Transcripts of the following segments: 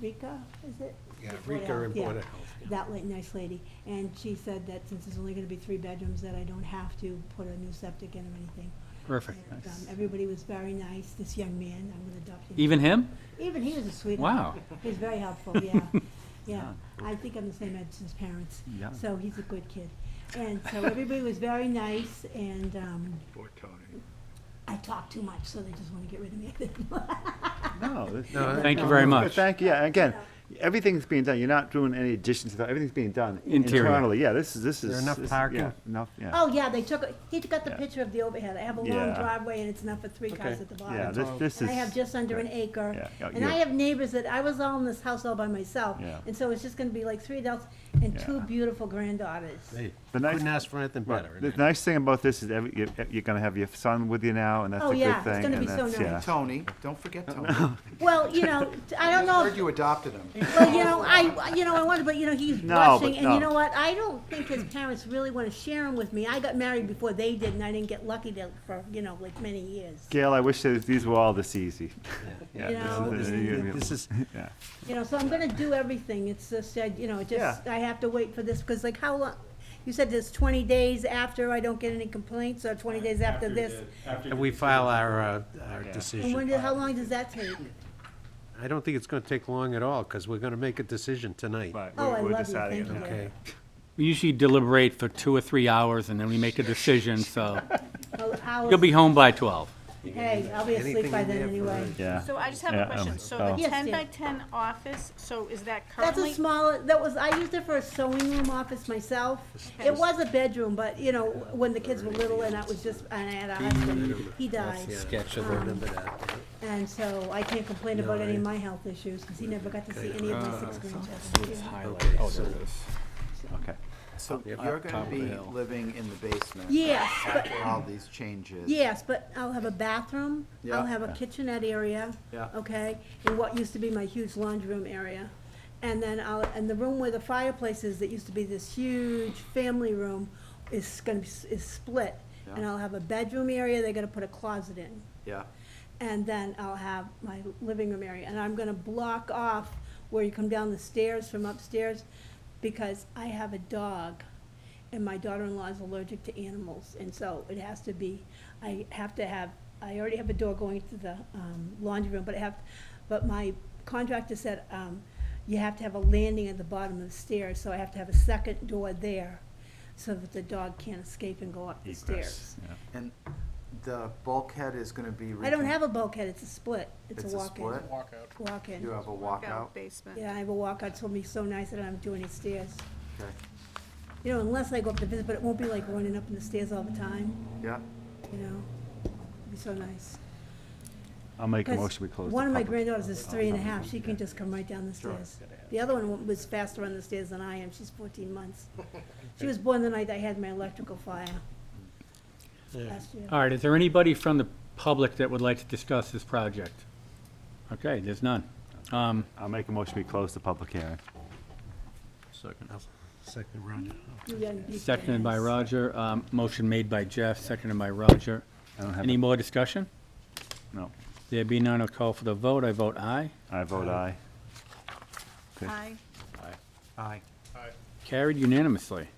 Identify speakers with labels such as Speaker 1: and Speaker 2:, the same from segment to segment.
Speaker 1: Rika, is it?
Speaker 2: Yeah,
Speaker 1: Board
Speaker 2: Rika and
Speaker 1: Health, yeah.
Speaker 2: Board of Health.
Speaker 1: That late, nice lady, and she said that since there's only gonna be three bedrooms, that I don't have to put a new septic in or anything.
Speaker 3: Perfect.
Speaker 1: And,
Speaker 3: Nice.
Speaker 1: um, Everybody was very nice, this young man, I'm gonna adopt him.
Speaker 3: Even him?
Speaker 1: Even he was a sweetheart.
Speaker 3: Wow.
Speaker 1: He's very helpful, yeah, yeah.
Speaker 3: Ah.
Speaker 1: I think I'm the same age as his parents.
Speaker 3: Yeah.
Speaker 1: So he's a good kid. And so everybody was very nice, and, um,
Speaker 4: Poor Tony.
Speaker 1: I talk too much, so they just wanna get rid of me.
Speaker 5: No. this-
Speaker 2: No,
Speaker 3: Thank you very
Speaker 5: no,
Speaker 3: much.
Speaker 5: Thank, yeah, again, everything's being done, you're not doing any additions, to that. everything's being done
Speaker 3: Interior.
Speaker 5: internally, yeah, this is, this is.
Speaker 2: There enough
Speaker 5: this-
Speaker 2: parking?
Speaker 5: yeah, Enough, yeah.
Speaker 1: Oh, yeah, they took, he took out the
Speaker 5: Yeah.
Speaker 1: picture of the overhead. I have a long
Speaker 5: Yeah.
Speaker 1: driveway and it's enough for three cars
Speaker 2: Okay.
Speaker 1: at the
Speaker 5: Yeah,
Speaker 1: bottom.
Speaker 5: this, this
Speaker 1: And
Speaker 5: is.
Speaker 1: I have just under an
Speaker 5: yeah.
Speaker 1: acre.
Speaker 5: Yeah, yeah,
Speaker 1: And I
Speaker 5: yeah.
Speaker 1: have neighbors that, I was all in this house all by myself.
Speaker 5: Yeah.
Speaker 1: And so it's just gonna be like three adults and two
Speaker 5: Yeah.
Speaker 1: beautiful granddaughters.
Speaker 2: Hey,
Speaker 5: The nice-
Speaker 2: couldn't ask for anything
Speaker 5: Right.
Speaker 2: better.
Speaker 5: The nice thing about this is every, you're, you're gonna have your son with you now, and that's
Speaker 1: Oh,
Speaker 5: a good thing.
Speaker 1: yeah, it's gonna
Speaker 5: and
Speaker 1: be so
Speaker 5: that's- yeah.
Speaker 1: nice.
Speaker 6: Tony, don't forget Tony.
Speaker 1: Well, you know, I don't know,
Speaker 6: Heard
Speaker 1: if-
Speaker 6: you adopted him.
Speaker 1: well, you know, I, you know, I wanted, but you know, he's
Speaker 5: No,
Speaker 1: rushing and
Speaker 5: but
Speaker 1: you
Speaker 5: no.
Speaker 1: know what? I don't think his parents really wanna share him with me. I got married before they did and I didn't get lucky to, for, you know, like many years.
Speaker 5: Gail, I wish that these were all this easy.
Speaker 2: Yeah,
Speaker 1: you know,
Speaker 2: this-
Speaker 5: and-
Speaker 2: This is,
Speaker 5: Yeah.
Speaker 1: You know, so I'm gonna do everything, it's just, I, you know, it just,
Speaker 5: Yeah.
Speaker 1: I have to wait for this, because like, how long? You said it's twenty days after I don't get any complaints, or twenty days after this?
Speaker 2: and we file our, uh, our
Speaker 1: And when,
Speaker 2: decision.
Speaker 1: did- how long does that take?
Speaker 2: I don't think it's gonna take long at all, because we're gonna make a decision tonight.
Speaker 5: Right,
Speaker 1: Oh,
Speaker 5: we're-
Speaker 1: I
Speaker 5: we're
Speaker 1: love you,
Speaker 5: deciding
Speaker 1: thank
Speaker 5: it now.
Speaker 1: you.
Speaker 2: Okay,
Speaker 3: We usually deliberate for two or three hours and then we make a decision, so
Speaker 1: Oh, hours?
Speaker 3: you'll be home by twelve.
Speaker 1: Hey, I'll be asleep
Speaker 2: Anything
Speaker 1: by
Speaker 2: in
Speaker 1: then
Speaker 2: there for-
Speaker 1: anyway.
Speaker 5: Yeah.
Speaker 7: So I just have a
Speaker 5: Yeah,
Speaker 7: question.
Speaker 5: um,
Speaker 7: So
Speaker 5: oh.
Speaker 7: the
Speaker 1: Yes,
Speaker 7: ten
Speaker 1: dear.
Speaker 7: by ten office, so is that
Speaker 1: That's a
Speaker 7: currently?
Speaker 1: small, that was, I used it for a sewing room office myself. It was a bedroom, but, you know, when the kids were little and I was just, and I had a husband, he died. Um,
Speaker 2: sketch, I remember that.
Speaker 1: And so I Uh, can't complain about any of my health issues, because he never got to see any of my six grandchildren.
Speaker 2: Okay, so,
Speaker 5: Okay.
Speaker 6: So you're gonna be living in the basement.
Speaker 1: Yes, but,
Speaker 6: After all these changes.
Speaker 1: yes, but I'll have a bathroom, I'll
Speaker 6: Yeah.
Speaker 1: have a kitchenette area.
Speaker 6: Yeah.
Speaker 1: Okay, and what used to be my huge laundry room area. And then I'll, and the room where the fireplace is, that used to be this huge family room, is gonna be, s- is split. And
Speaker 6: Yeah.
Speaker 1: I'll have a bedroom area, they're gonna put a closet in.
Speaker 6: Yeah.
Speaker 1: and then I'll have my living room area, and I'm gonna block off where you come down the stairs from upstairs, because I have a dog, and my daughter-in-law is allergic to animals, and so it has to be, I have to have, I already have a door going to the, um, laundry room, but I have, but my contractor said, um, you have to have a landing at the bottom of the stairs, so I have to have a second door there, so that the dog can't escape and go up the
Speaker 5: Egress,
Speaker 1: stairs.
Speaker 5: yeah.
Speaker 6: And the bulkhead is gonna be.
Speaker 1: I don't
Speaker 6: recon-
Speaker 1: have a bulkhead, it's a split, it's a
Speaker 6: It's a
Speaker 1: walk-in.
Speaker 6: split? You
Speaker 1: Walk-in.
Speaker 6: have a walkout?
Speaker 7: Basement.
Speaker 1: Yeah, I have a walkout, it's gonna be so nice that I don't do any stairs.
Speaker 6: Okay.
Speaker 1: You know, unless I go up to visit, but it won't be like running up in the stairs all the time,
Speaker 6: Yeah.
Speaker 1: you know? It'd be so nice.
Speaker 5: I'll make a
Speaker 1: 'Cause
Speaker 5: motion, we close the public.
Speaker 1: One of my granddaughters is three and a half, she can just come right down the stairs. The other one was faster on the stairs than I am, she's fourteen months. She was born the night I had my electrical fire. Last year.
Speaker 3: All right, is there anybody from the public that would like to discuss this project? Okay, there's none. Um,
Speaker 5: I'll make a motion, we close the public hearing.
Speaker 2: second round.
Speaker 1: You gotta be
Speaker 3: Seconded by
Speaker 1: fast.
Speaker 3: Roger, um, motion made by Jeff, seconded by Roger.
Speaker 5: I don't have,
Speaker 3: Any more discussion?
Speaker 5: no,
Speaker 3: There be none, I'll call for the vote, I vote aye.
Speaker 5: I vote aye.
Speaker 7: Aye.
Speaker 6: Aye.
Speaker 3: Carried unanimously.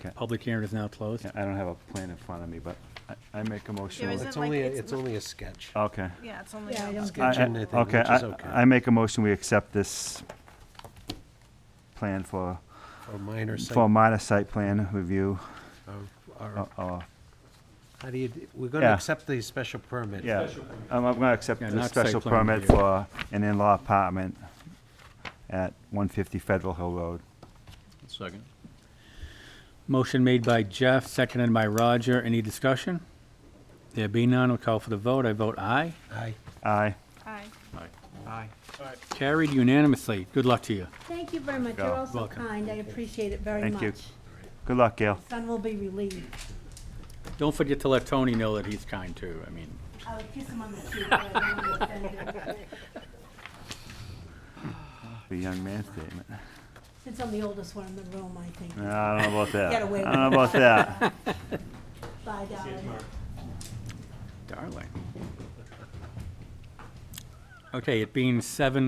Speaker 5: Okay.
Speaker 3: Public hearing is now closed.
Speaker 5: Yeah, I don't have a plan in front of me, but I, I make a motion.
Speaker 7: There
Speaker 5: we-
Speaker 7: isn't
Speaker 2: It's
Speaker 7: like
Speaker 2: only, a-
Speaker 7: it's
Speaker 2: it's
Speaker 7: not-
Speaker 2: only a sketch.
Speaker 5: Okay.
Speaker 7: Yeah, it's only.
Speaker 1: Yeah, I
Speaker 7: a-
Speaker 1: don't-
Speaker 5: I- I-
Speaker 2: Kitchen, I think,
Speaker 5: okay,
Speaker 2: which is
Speaker 5: I-
Speaker 2: okay.
Speaker 5: I make a motion, we accept this plan for,
Speaker 2: Or minor site.
Speaker 5: for minor site plan review.
Speaker 2: or- or-
Speaker 5: Oh, oh,
Speaker 2: How do you, d- we're gonna
Speaker 5: Yeah.
Speaker 2: accept the special permit.
Speaker 5: Yeah, I'm, I'm gonna accept
Speaker 3: Yeah,
Speaker 5: the
Speaker 3: not site
Speaker 5: special
Speaker 3: plan
Speaker 5: permit
Speaker 3: review.
Speaker 5: for an in-law apartment at one fifty Federal Hill Road.
Speaker 4: Second.
Speaker 3: Motion made by Jeff, seconded by Roger. Any discussion? There be none, I'll call for the vote. I vote aye.
Speaker 2: Aye.
Speaker 5: Aye.
Speaker 7: Aye.
Speaker 6: Aye.
Speaker 3: Carried unanimously. Good luck to you.
Speaker 1: Thank you very much, you're all so
Speaker 3: Welcome.
Speaker 1: kind, I appreciate it very much.
Speaker 5: Thank you. Good luck, Gail.
Speaker 1: Son will be relieved.
Speaker 3: Don't forget to let Tony know that he's kind too. I mean,
Speaker 1: I would kiss him on the cheek, but I don't want to offend him.
Speaker 5: The young man statement.
Speaker 1: Since I'm the oldest one in the room, I think.
Speaker 5: No, I don't know about that.
Speaker 1: Get away
Speaker 5: I don't
Speaker 1: with
Speaker 5: know about that.
Speaker 1: Bye, darling.
Speaker 3: darling. Okay, it being seven